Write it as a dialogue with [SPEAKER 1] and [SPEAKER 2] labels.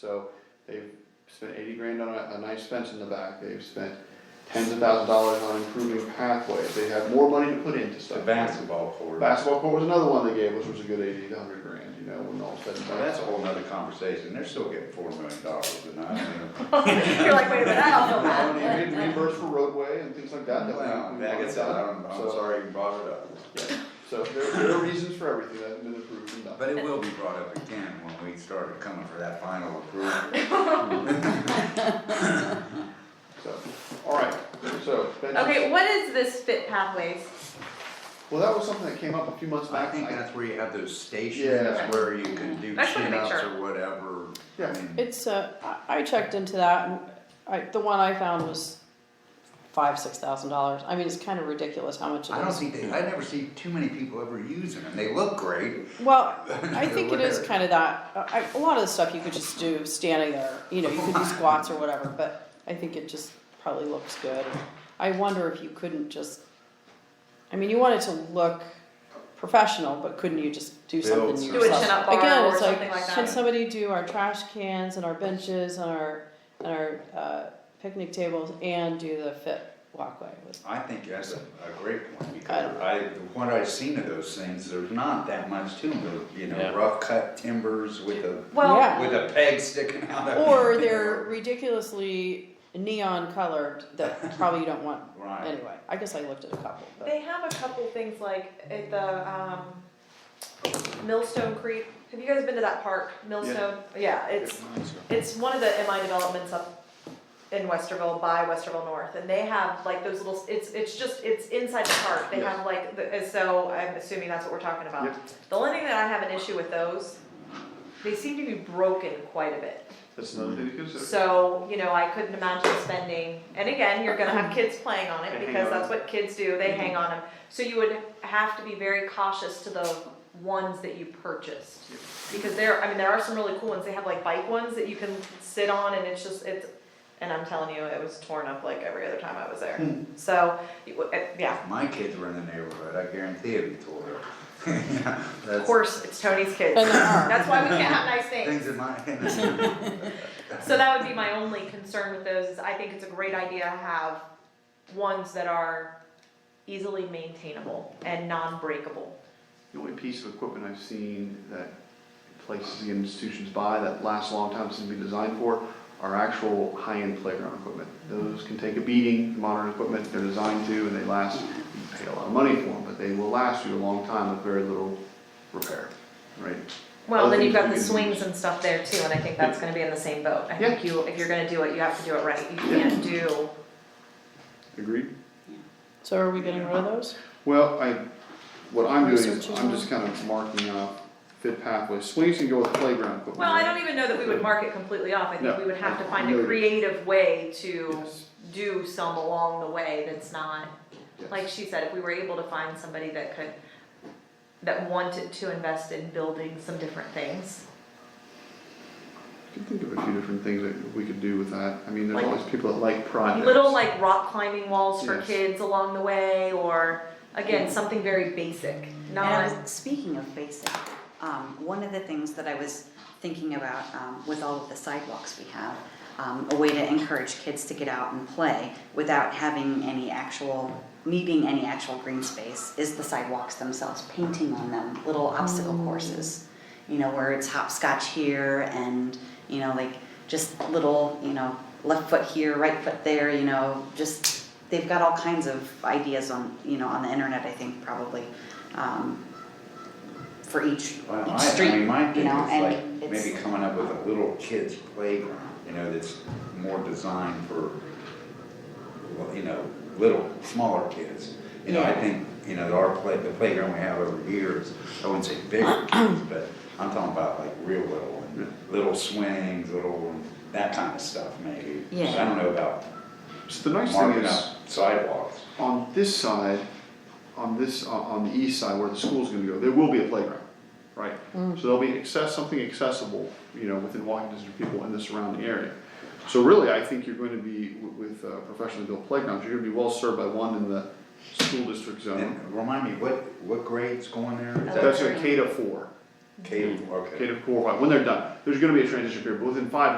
[SPEAKER 1] So they've spent eighty grand on a, a nice fence in the back, they've spent tens of thousands of dollars on improving pathways, they have more money to put into
[SPEAKER 2] The
[SPEAKER 1] stuff.
[SPEAKER 2] basketball court.
[SPEAKER 1] Basketball court was another one they gave us, was a good eighty to hundred grand, you know, when all said and
[SPEAKER 2] Well,
[SPEAKER 1] done.
[SPEAKER 2] that's a whole nother conversation, they're still getting four million dollars and I mean.
[SPEAKER 3] You're like, wait a minute, I don't know
[SPEAKER 1] Well, and
[SPEAKER 3] that.
[SPEAKER 1] you get reimbursed for roadway and things like that, that we.
[SPEAKER 2] Well,
[SPEAKER 1] we
[SPEAKER 2] yeah, I
[SPEAKER 1] wanted
[SPEAKER 2] guess I don't,
[SPEAKER 1] done.
[SPEAKER 2] I'm
[SPEAKER 1] So-
[SPEAKER 2] sorry you brought it up.
[SPEAKER 1] yeah. So there, there are reasons for everything that hasn't been approved and done.
[SPEAKER 2] But it will be brought up again when we started coming for that final approval.
[SPEAKER 1] So, all right, so. that just-
[SPEAKER 3] Okay, what is this Fit Pathways?
[SPEAKER 1] Well, that was something that came up a few months
[SPEAKER 2] I
[SPEAKER 1] back.
[SPEAKER 2] think that's where you have those stations
[SPEAKER 1] Yeah.
[SPEAKER 2] where you can do
[SPEAKER 3] I just wanna make
[SPEAKER 2] chin-ups
[SPEAKER 3] sure.
[SPEAKER 2] or whatever. I
[SPEAKER 1] Yeah.
[SPEAKER 2] mean,
[SPEAKER 4] It's, uh, I, I checked into that and I, the one I found was five, six thousand dollars. I mean, it's kind of ridiculous how much it is.
[SPEAKER 2] I don't think they, I never see too many people ever using them, they look great.
[SPEAKER 4] Well, I think it is
[SPEAKER 2] Whatever.
[SPEAKER 4] kind of that, I, a lot of the stuff you could just do standing there, you know, you could do squats or whatever, but I think it just probably looks good. I wonder if you couldn't just, I mean, you want it to look professional, but couldn't you just do
[SPEAKER 2] Build
[SPEAKER 4] something
[SPEAKER 2] some-
[SPEAKER 4] yourself?
[SPEAKER 2] Do a
[SPEAKER 3] chin-up bar or
[SPEAKER 4] Again, it's
[SPEAKER 3] something like
[SPEAKER 4] like,
[SPEAKER 3] that.
[SPEAKER 4] can somebody do our trash cans and our benches and our, and our, uh, picnic tables and do the fit walkway with?
[SPEAKER 2] I think that's a, a great point,
[SPEAKER 4] I
[SPEAKER 2] because
[SPEAKER 4] don't-
[SPEAKER 2] I, what I've seen of those things, there's not that much to them, you know,
[SPEAKER 5] Yeah.
[SPEAKER 2] rough cut timbers with a,
[SPEAKER 3] Well,
[SPEAKER 4] Yeah.
[SPEAKER 2] with a peg sticking out of it.
[SPEAKER 4] Or they're ridiculously neon colored that probably you don't want
[SPEAKER 2] Right,
[SPEAKER 4] Anyway, I guess I looked at a couple, but
[SPEAKER 3] they have a couple things like at the, um, Millstone Creek. Have you guys been to that park, Millstone? Yeah, it's, it's one of the MI developments up in Westerville by Westerville North. And they have like those little, it's, it's just, it's inside the park. They
[SPEAKER 1] Yes.
[SPEAKER 3] have like, the- so I'm assuming that's what we're talking about.
[SPEAKER 1] Yep.
[SPEAKER 3] The only thing that I have an issue with those, they seem to be broken quite a bit.
[SPEAKER 1] That's another thing to consider.
[SPEAKER 3] So, you know, I couldn't imagine spending, and again, you're gonna have kids playing on
[SPEAKER 1] They
[SPEAKER 3] it
[SPEAKER 1] hang
[SPEAKER 3] because
[SPEAKER 1] on. Mm-hmm.
[SPEAKER 3] that's what kids do, they hang on them. So you would have to be very cautious to the ones that you purchased. Because there, I mean, there are some really cool ones, they have like bike ones that you can sit on and it's just, it's, and I'm telling you, it was torn up like every other time I was there.
[SPEAKER 1] Hmm.
[SPEAKER 3] So, you would- eh, yeah,
[SPEAKER 2] my kids were in the neighborhood, I guarantee it'd be tore up. Yeah,
[SPEAKER 3] of
[SPEAKER 2] that's-
[SPEAKER 3] course, it's Tony's kids.
[SPEAKER 4] And there are.
[SPEAKER 3] That's why we can't have nice things.
[SPEAKER 2] Things in my, in
[SPEAKER 3] So that would be my only concern with those, is I think it's a great idea to have ones that are easily maintainable and non-breakable.
[SPEAKER 1] The only piece of equipment I've seen that places and institutions buy that lasts a long time, seems to be designed for, are actual high-end playground equipment. Those can take a beating, modern equipment, they're designed to, and they last, you pay a lot of money for them, but they will last you a long time with very little repair, right?
[SPEAKER 3] Well, then you've got
[SPEAKER 1] Other
[SPEAKER 3] the
[SPEAKER 1] things you can
[SPEAKER 3] swings and stuff there too, and I think that's gonna be in the same boat. I think you, if you're gonna do it, you have to do it right, you can't do,
[SPEAKER 1] Agreed?
[SPEAKER 4] so are we getting rid of those?
[SPEAKER 1] Well, I, what I'm doing is,
[SPEAKER 4] Research is
[SPEAKER 1] I'm just kind of marking off fit pathways. Swings can go with playground equipment.
[SPEAKER 3] well, I don't even know that we would mark it completely off, I think
[SPEAKER 1] No.
[SPEAKER 3] we would have to find a
[SPEAKER 1] No.
[SPEAKER 3] creative way to
[SPEAKER 1] Yes.
[SPEAKER 3] do some along the way that's not
[SPEAKER 1] Yes.
[SPEAKER 3] like she said, if we were able to find somebody that could, that wanted to invest in building some different things.
[SPEAKER 1] I can think of a few different things that we could do with that. I mean, there's
[SPEAKER 3] Like-
[SPEAKER 1] always people that like projects.
[SPEAKER 3] Little like rock climbing walls for
[SPEAKER 1] Yes.
[SPEAKER 3] kids along the way, or again, something very basic,
[SPEAKER 6] And I
[SPEAKER 3] not,
[SPEAKER 6] was, speaking of basic, um, one of the things that I was thinking about, um, with all of the sidewalks we have, um, a way to encourage kids to get out and play without having any actual, needing any actual green space, is the sidewalks themselves, painting on them, little obstacle courses. You know, where it's hopscotch here and, you know, like, just little, you know, left foot here, right foot there, you know, just, they've got all kinds of ideas on, you know, on the internet, I think, probably, um, for each,
[SPEAKER 2] Well,
[SPEAKER 6] each
[SPEAKER 2] I, I
[SPEAKER 6] street,
[SPEAKER 2] mean, my
[SPEAKER 6] you
[SPEAKER 2] thing
[SPEAKER 6] know,
[SPEAKER 2] is
[SPEAKER 6] and
[SPEAKER 2] like,
[SPEAKER 6] it's.
[SPEAKER 2] maybe coming up with a little kid's playground, you know, that's more designed for, well, you know, little, smaller kids. You know, I
[SPEAKER 6] Yeah.
[SPEAKER 2] think, you know, our play, the playground we have over here is, I wouldn't say bigger kids, but I'm talking about like real little, and little swings, little, that kind of stuff maybe.
[SPEAKER 6] Yeah.
[SPEAKER 2] I don't know about
[SPEAKER 1] So the nice thing
[SPEAKER 2] marking
[SPEAKER 1] is,
[SPEAKER 2] up sidewalks.
[SPEAKER 1] on this side, on this, on- on the east side where the school's gonna go, there will be a playground, right? So there'll be access, something accessible, you know, within walking distance of people in the surrounding area. So really, I think you're going to be, w- with uh, professionally built playgrounds, you're gonna be well served by one in the school district
[SPEAKER 2] And
[SPEAKER 1] zone.
[SPEAKER 2] remind me, what, what grade's going there? Is that
[SPEAKER 1] That's a K to four,
[SPEAKER 2] K, okay.
[SPEAKER 1] K to four, when they're done. there's gonna be a transition period, but within five years.